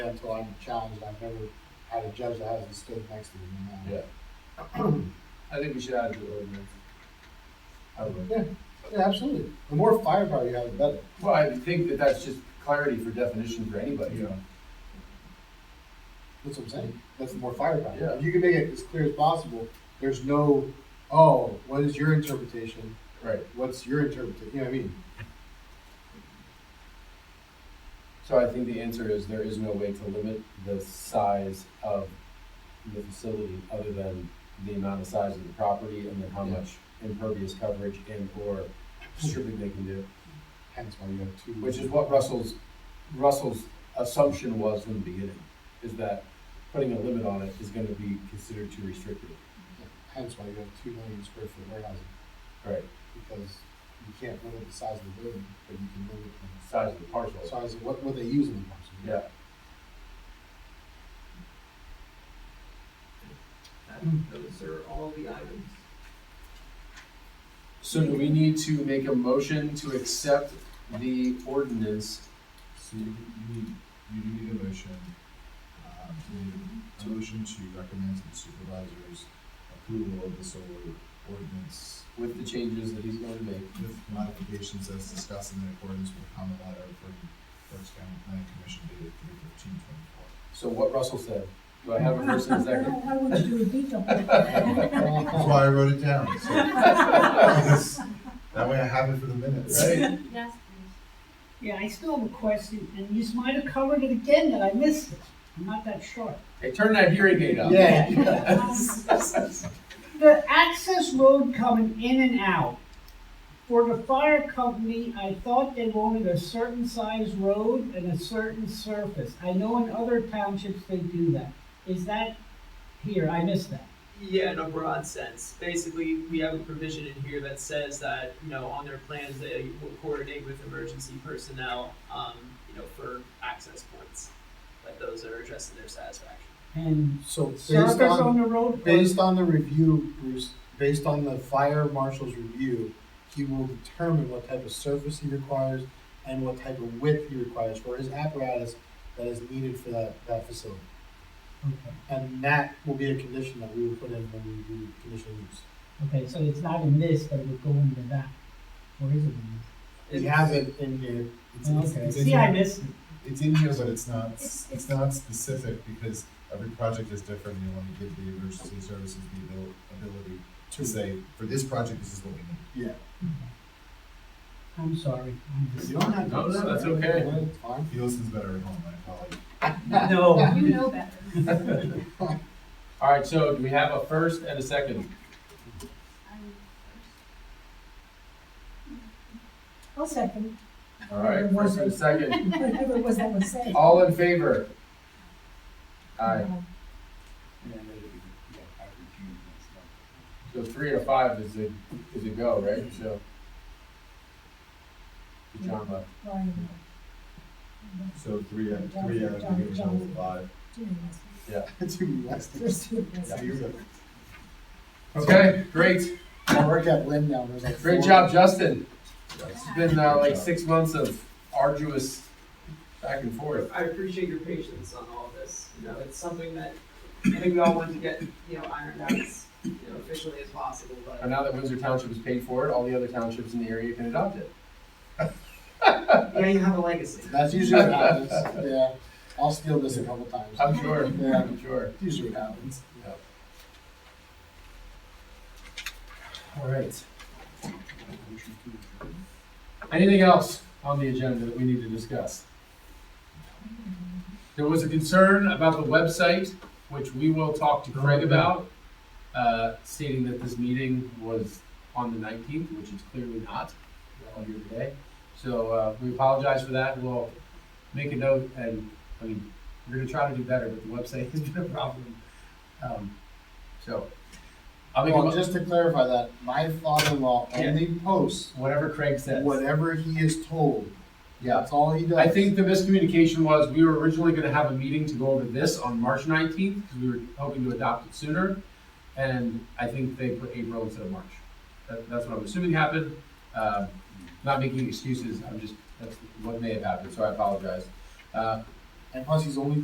until I'm challenged, I've never had a judge that hasn't stood next to me. you know? I think we should add to the ordinance. I would. Yeah, absolutely. The more firepower you have, the better. Well, I think that that's just clarity for definition for anybody, you know? That's what I'm saying. That's the more firepower. Yeah. If you can make it as clear as possible, there's no, oh, what is your interpretation? Right. What's your interpretation? You know what I mean? So I think the answer is there is no way to limit the size of the facility other than the amount of size of the property and then how Yeah. much impervious coverage and or stripping they can do, Mm-hmm. Hence why you have two. which is what Russell's, Russell's assumption was from the beginning, is that putting a limit on it is gonna be considered too restrictive. Hence why you have two million square foot warehousing, Right. because you can't limit the size of the building, but you can limit the Size of the parcel. size of what, what they use in the parcel. Yeah. And those are all the items. So do we need to make a motion to accept the ordinance? So you, you need, you do need a motion, um, you need a motion to recommend to the supervisors approval of the solar ordinance With the changes that he's going to make. with modifications as discussed in accordance with common letter from Berks County Planning Commission dated three fifteen twenty-four. So what Russell said, do I have a first and a second? How would you do a detail? That's why I wrote it down, so. That way I have it for the minutes. Right? Yes, Yeah, I still have a question, and you might have covered it again, that I missed it. I'm not that sure. Hey, turn that hearing aid up. Yeah. The access road coming in and out. For the fire company, I thought they wanted a certain size road and a certain surface. I know in other townships they do that. Is that here? I missed that. Yeah, in a broad sense. Basically, we have a provision in here that says that, you know, on their plans, they will coordinate with emergency personnel, um, you know, for access points. That those are addressed to their satisfaction. And So based surface on- on the road. or- Based on the review, Bruce, based on the fire marshal's review, he will determine what type of surface he requires and what type of width he requires for his apparatus that is needed for that, that facility. Okay. And that will be a condition that we will put in when we do conditional use. Okay, so it's not in this, but it would go into that. Or is it in We It's- have it in here, this? It's- it's- Okay, it's in see, I here. missed it. It's in here, but it's not, It's- it's not specific because every project is different. and You want to give the emergency services the abil- ability to say, for this project, this is what we need. I'm sorry. I'm just- you don't have to. No, no, that's okay. It's fine. He listens better at home, I probably. No. Oh, you know better. All right, so do we have a first and a second? I'm first. I'll second, All right, first and a second. whatever it was that was said. All in favor? Aye. So three or five is a, is a go, right? So. Good job, bud. Brian, So three, out- three out of the original five. Jim, that's- Too relaxed. there's two of us. So you're good. Okay, great. I work at Lynn now, there's like. Great four- job, Justin. Yes. It's been uh, like six months of arduous back and forth. I appreciate your patience on all of this. You know, it's something that I think we all want to get, you know, ironed out as, you know, efficiently as possible, And but now that Windsor Township has paid for it, all the other townships in the area can adopt it. yeah, you have a legacy. That's usually what happens, yeah. I'll steal this a couple times. I'm sure. Yeah. I'm sure. That's usually what happens. All right. Anything else on the agenda that we need to discuss? There was a concern about the website, which we will talk to Craig about, uh, stating that this meeting was on the nineteenth, which it's clearly not. We're all here today. So, uh, we apologize for that. We'll make a note and, I mean, we're gonna try to do better, but the website has been a problem. Um, So, I'll make a, Well, mo- just to clarify that, my father-in-law Yeah. only posts whatever Craig says. whatever he is told. Yeah. That's all he does. I think the miscommunication was, we were originally gonna have a meeting to go over this on March nineteenth, because we were hoping to adopt it sooner. And I think they put April instead of March. That, that's what I'm assuming happened. Uh, not making excuses, I'm just, that's what may have happened, so I apologize. Uh, And plus, he's only